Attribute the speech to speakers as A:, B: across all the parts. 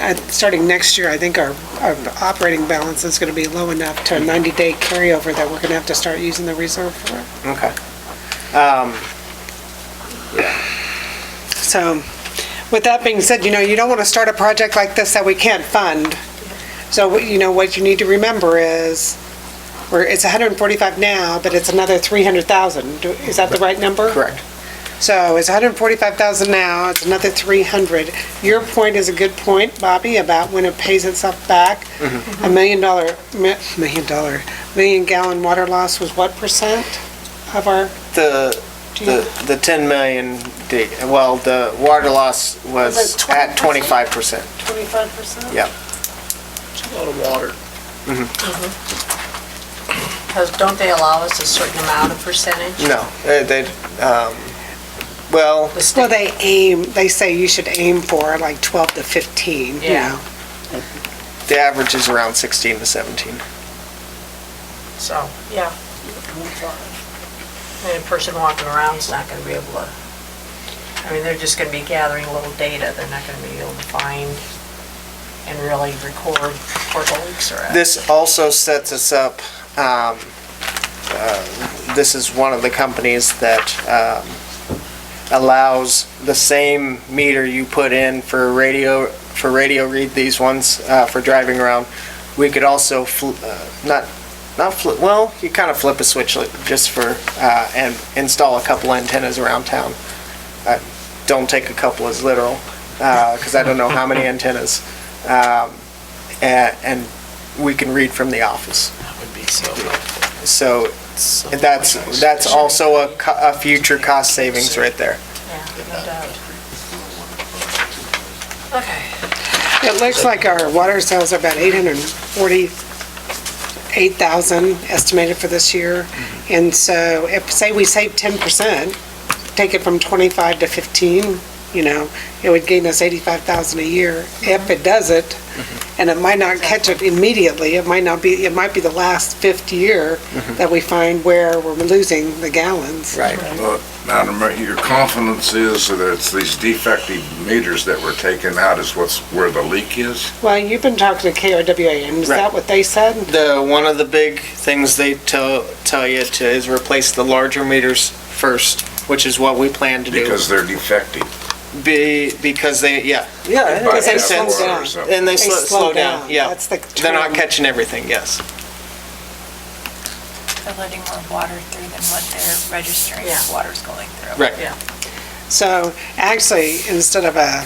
A: at- uh, starting next year, I think our, our operating balance is gonna be low enough to a 90-day carryover that we're gonna have to start using the reserve for it.
B: Okay.
A: So, with that being said, you know, you don't want to start a project like this that we can't fund. So, what- you know, what you need to remember is, we're, it's 145 now, but it's another 300,000. Do- Is that the right number?
B: Correct.
A: So it's 145,000 now, it's another 300. Your point is a good point, Bobby, about when it pays itself back. A million dollar, mi- million dollar, million gallon water loss was what percent of our,
B: The,
A: do you?
B: the, the 10 million, di- well, the water loss
A: Was
B: was
A: it
B: at
A: 25%?
B: 25%.
A: 25%?
B: Yeah.
C: It's a lot of water.
D: Because don't they allow us a certain amount of percentage?
B: No, uh, they, um, well,
D: The
A: Well,
D: state,
A: they aim, they say you should aim for like 12 to 15, you
D: Yeah.
A: know.
B: the average is around 16 to 17.
D: so, yeah. I mean, a person walking around's not gonna be able to, I mean, they're just gonna be gathering little data, they're not gonna be able to find and really record where the leaks are at.
B: This also sets us up, um, uh, this is one of the companies that um, allows the same meter you put in for radio, for radio read these ones, uh, for driving around. We could also, fl- uh, not, not flip, well, you kind of flip a switch like, just for, uh, and install a couple antennas around town. Uh, Don't take a couple as literal, because I don't know how many antennas. Um, a- And we can read from the office.
C: That would be so helpful.
B: So
C: So
B: that's,
C: nice.
B: that's also a, co- a future cost savings right there.
D: Yeah, no doubt. Okay.
A: It looks like our water sales are about 848,000 estimated for this year. And so if, say we save 10%, take it from 25 to 15, you know, it would gain us 85,000 a year. If it does it, and it might not catch it immediately, it might not be, it might be the last fifth year that we find where we're losing the gallons.
B: Right.
E: But Madam Mayor, your confidence is that it's these defective meters that were taken out is what's, where the leak is?
A: Well, you've been talking to KRWA, and is that
B: Right.
A: what they said?
B: The, one of the big things they tell, tell you to is replace the larger meters first, which is what we plan to do.
E: Because they're defective.
B: Be, because they, yeah.
A: Yeah,
E: by
A: because they slow
E: half water or
A: down.
E: something.
B: And they slow, slow down, yeah.
A: That's the
B: They're not
A: term.
B: catching everything, yes.
F: They're letting more water through than what they're registering
D: Yeah.
F: water's going through.
B: Right.
A: So actually, instead of a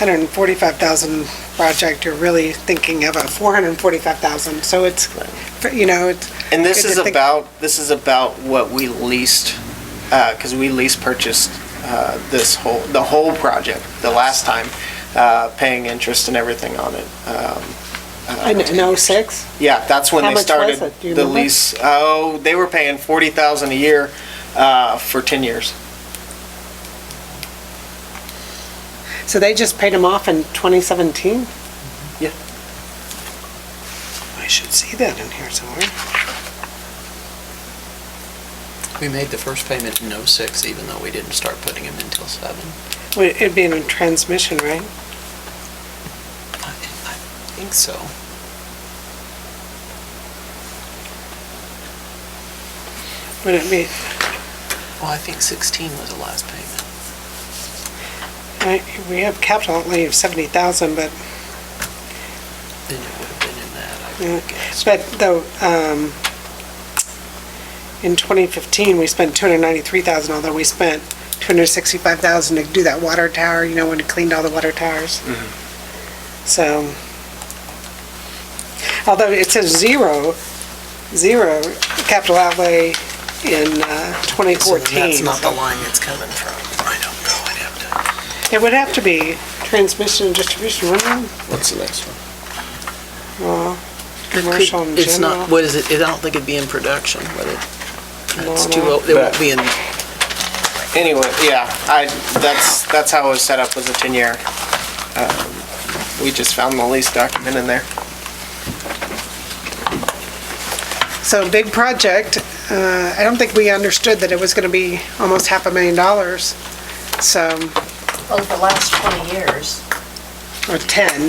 A: 145,000 project, you're really thinking of a 445,000. So it's, you know, it's,
B: And this
A: Good to
B: is
A: think-
B: about, this is about what we leased, because we lease purchased uh, this whole, the whole project, the last time, uh, paying interest and everything on it. Um,
A: I know, 06?
B: Yeah, that's when
A: How
B: they
A: much was
B: started
A: it? Do you
B: the
A: remember?
B: lease. Oh, they were paying 40,000 a year uh, for 10 years.
A: So they just paid them off in 2017?
B: Yeah.
A: I should see that in here somewhere.
C: We made the first payment in '06, even though we didn't start putting them until '07.
A: Would- It'd be in a transmission, right?
C: I I think so.
A: Would it be,
C: Well, I think 16 was the last payment.
A: I- we have capital outlay of 70,000, but
C: Then it would have been in that, I
A: Yeah.
C: would guess.
A: But though, um, in 2015, we spent 293,000, although we spent 265,000 to do that water tower, you know, when it cleaned all the water towers.
C: Mm-hmm.
A: So, although it says zero, zero capital outlay in uh,
C: So then
A: 2014.
C: That's not the line it's coming from. I don't know, I'd have
A: It would have to be transmission and distribution, wouldn't it?
C: to. What's the next one?
A: Well, commercial and
C: It's
A: general.
C: not, what is it, I don't think it'd be in production, would it?
A: No,
C: It's
A: no.
C: too, old. it won't
B: But-
C: be in,
B: Anyway, yeah, I, that's, that's how it was set up, was a 10-year. Um, We just found the lease document in there.
A: So big project, uh, I don't think we understood that it was gonna be almost half a million dollars. So,
D: Over the last 20 years,
A: or 10,